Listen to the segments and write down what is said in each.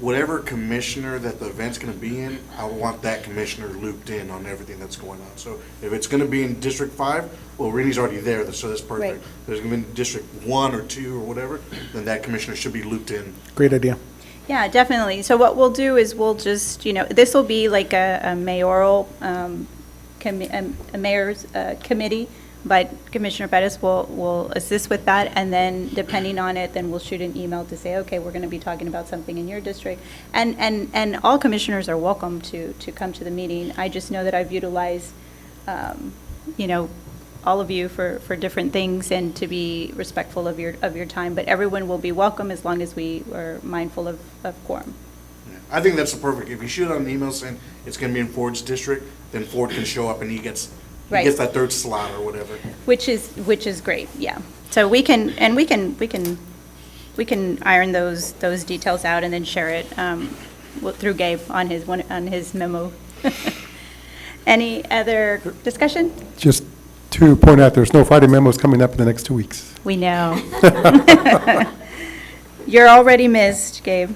whatever commissioner that the event's gonna be in, I want that commissioner looped in on everything that's going on. So if it's gonna be in District Five, well, Rennie's already there, so that's perfect. Right. If it's gonna be in District One or Two or whatever, then that commissioner should be looped in. Great idea. Yeah, definitely. So what we'll do is we'll just, you know, this will be like a a mayoral, um, commi- um, a mayor's uh, committee, but Commissioner Bettis will, will assist with that, and then depending on it, then we'll shoot an email to say, okay, we're going to be talking about something in your district. And, and, and all commissioners are welcome to, to come to the meeting. I just know that I've utilized, um, you know, all of you for, for different things and to be respectful of your, of your time, but everyone will be welcome as long as we are mindful of, of quorum. Yeah. I think that's the perfect, if you shoot out an email saying it's gonna be in Ford's district, then Ford can show up and he gets, he Right. gets that third slot or whatever. Which is, which is great, yeah. So we can, and we can, we can, we can iron those, those details out and then share it um, wi- through Gabe on his, one on his memo. Any other discussion? Just to point out, there's no Friday memos coming up in the next two weeks. We know. You're already missed, Gabe.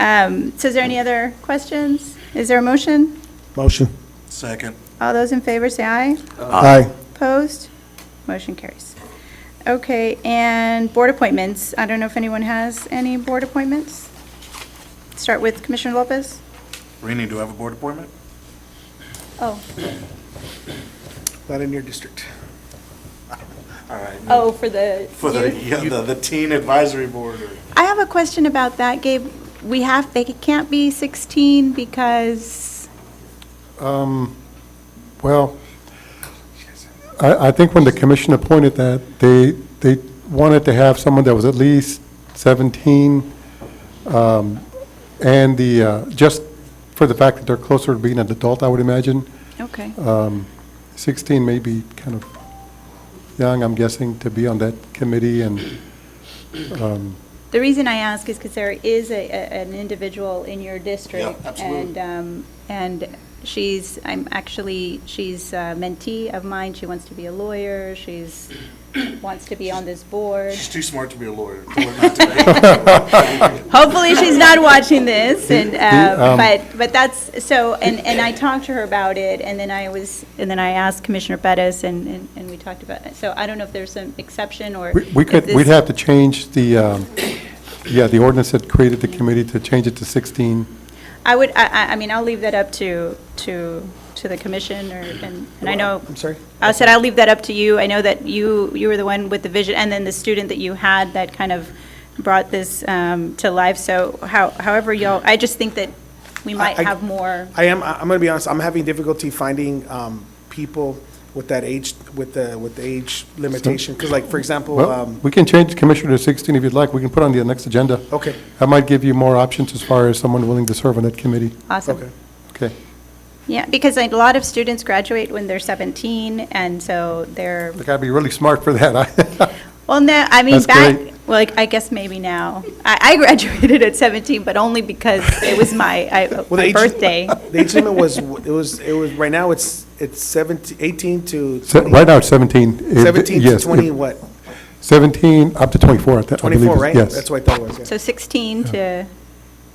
Um, So is there any other questions? Is there a motion? Motion. Second. All those in favor say aye. Aye. Opposed? Motion carries. Okay, and board appointments. I don't know if anyone has any board appointments? Start with Commissioner Lopez? Rennie, do I have a board appointment? Oh, Not in your district. All right. no. oh, for the For the, yeah, the, the teen advisory board or? I have a question about that, Gabe. We have, they can't be 16 because, Um, Well, I, I think when the commission appointed that, they, they wanted to have someone that was at least 17, um, and the, uh, just for the fact that they're closer to being an adult, I would imagine, okay. 16 may be kind of young, I'm guessing, to be on that committee, and The reason I ask is because there is a, a- an individual in your district. Yeah, absolutely. And, um, and she's, I'm actually, she's a mentee of mine. She wants to be a lawyer. She's, wants to be on this board. She's too smart to be a lawyer. Tell her not to be. Hopefully, she's not watching this, and, The- the, uh, um, but, but that's, so, and, and I talked to her about it, and then I was, and then I asked Commissioner Bettis, and, and- and we talked about it. So I don't know if there's an exception, or. we we if could, this- we'd have to change the, um, yeah, the ordinance that created the committee to change it to 16. I would, I, I, I mean, I'll leave that up to, to, to the commission, or, and, and I know. I'm sorry? I said I'll leave that up to you. I know that you, you were the one with the vision, and then the student that you had that kind of brought this, um, to life. So how, however y'all, I just think that we might I- have more. I am, I- I'm gonna be honest, I'm having difficulty finding, um, people with that age, with the, with the age limitation, because like, for example, Well, um, we can change Commissioner to 16 if you'd like. We can put on the next agenda. okay, That might give you more options as far as someone willing to serve on that committee. Awesome. okay. Okay. Yeah, because like, a lot of students graduate when they're 17, and so they're, They gotta be really smart for that. well, no, I mean, That's back, great. well, like, I guess maybe now. I, I graduated at 17, but only because it was my, I- the my age- birthday. The age limit was, it was, it was, right now, it's, it's seventeen, eighteen to So, Right now, it's 17. If- seventeen to yes, if- twenty, what? 17 up to 24, I th- I believe. Twenty-four, it's- right? Yes. That's what I thought it was, yeah, So 16 to,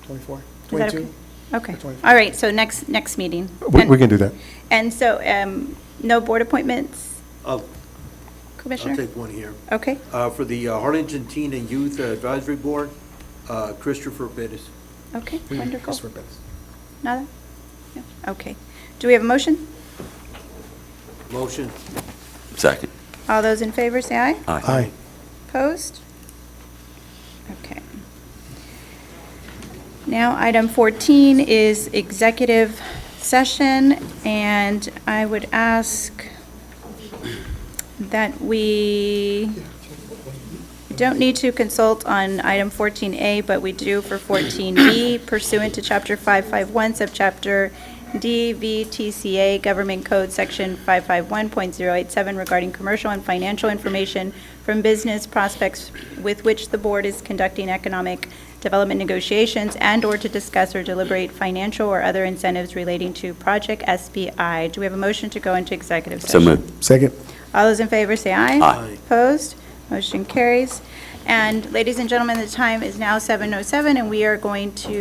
twenty-four, is that okay? twenty-two. Okay, Twenty-four. all right, so next, next meeting. We- And- We can do that. And so, um, no board appointments, I'll, Oh, I'll Commissioner? take one here. Okay, Uh, For the uh, Harlingen Teen and Youth Advisory Board, uh, Christopher Bettis. okay, We- wonderful. Christopher Bettis. Nada? Yeah, Okay. Do we have a motion? Motion. Second. All those in favor, say aye. Aye. Opposed? Okay. Now, item 14 is executive session, and I would ask that we don't need to consult on item 14A, but we do for 14B pursuant to Chapter 551, Subchapter DVTCA, Government Code, Section 551.087, regarding commercial and financial information from business prospects with which the board is conducting economic development negotiations and/or to discuss or deliberate financial or other incentives relating to Project SBI. Do we have a motion to go into executive So session? moved. Second. All those in favor say aye. Aye. Opposed? Motion carries. oh And ladies and gentlemen, the time is now 7:07, and we are going to